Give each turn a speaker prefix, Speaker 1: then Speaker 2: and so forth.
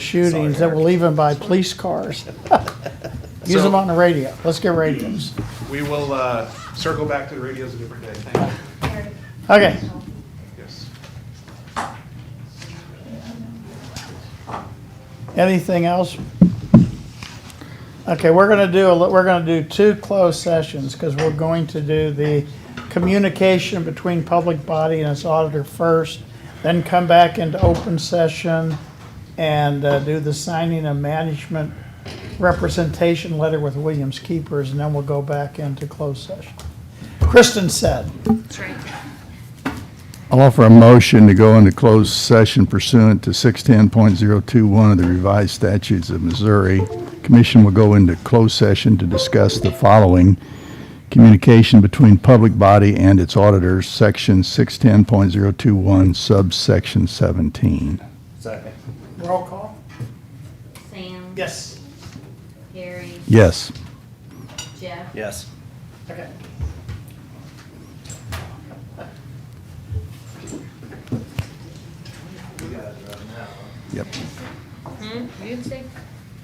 Speaker 1: shootings that were even by police cars. Use
Speaker 2: So-
Speaker 1: them on the radio. Let's get radios.
Speaker 2: We will uh, circle back to the radios a different day. Thank you.
Speaker 1: Okay.
Speaker 2: Yes.
Speaker 1: Anything else? Okay, we're gonna do, a li- we're gonna do two closed sessions, because we're going to do the communication between public body and its auditor first, then come back into open session and uh, do the signing of management representation letter with Williams Keepers, and then we'll go back into closed session. Kristen said,
Speaker 3: That's right.
Speaker 4: I'll offer a motion to go into closed session pursuant to 610.021 of the revised statutes of Missouri. Commission will go into closed session to discuss the following: communication between public body and its auditors, section 610.021, subsection 17.
Speaker 2: Second.
Speaker 1: roll call?
Speaker 3: Sam?
Speaker 1: Yes.
Speaker 3: Gary?
Speaker 4: Yes.
Speaker 3: Jeff?
Speaker 5: Yes.
Speaker 1: Okay.
Speaker 4: Yep.
Speaker 3: Hmm? You didn't say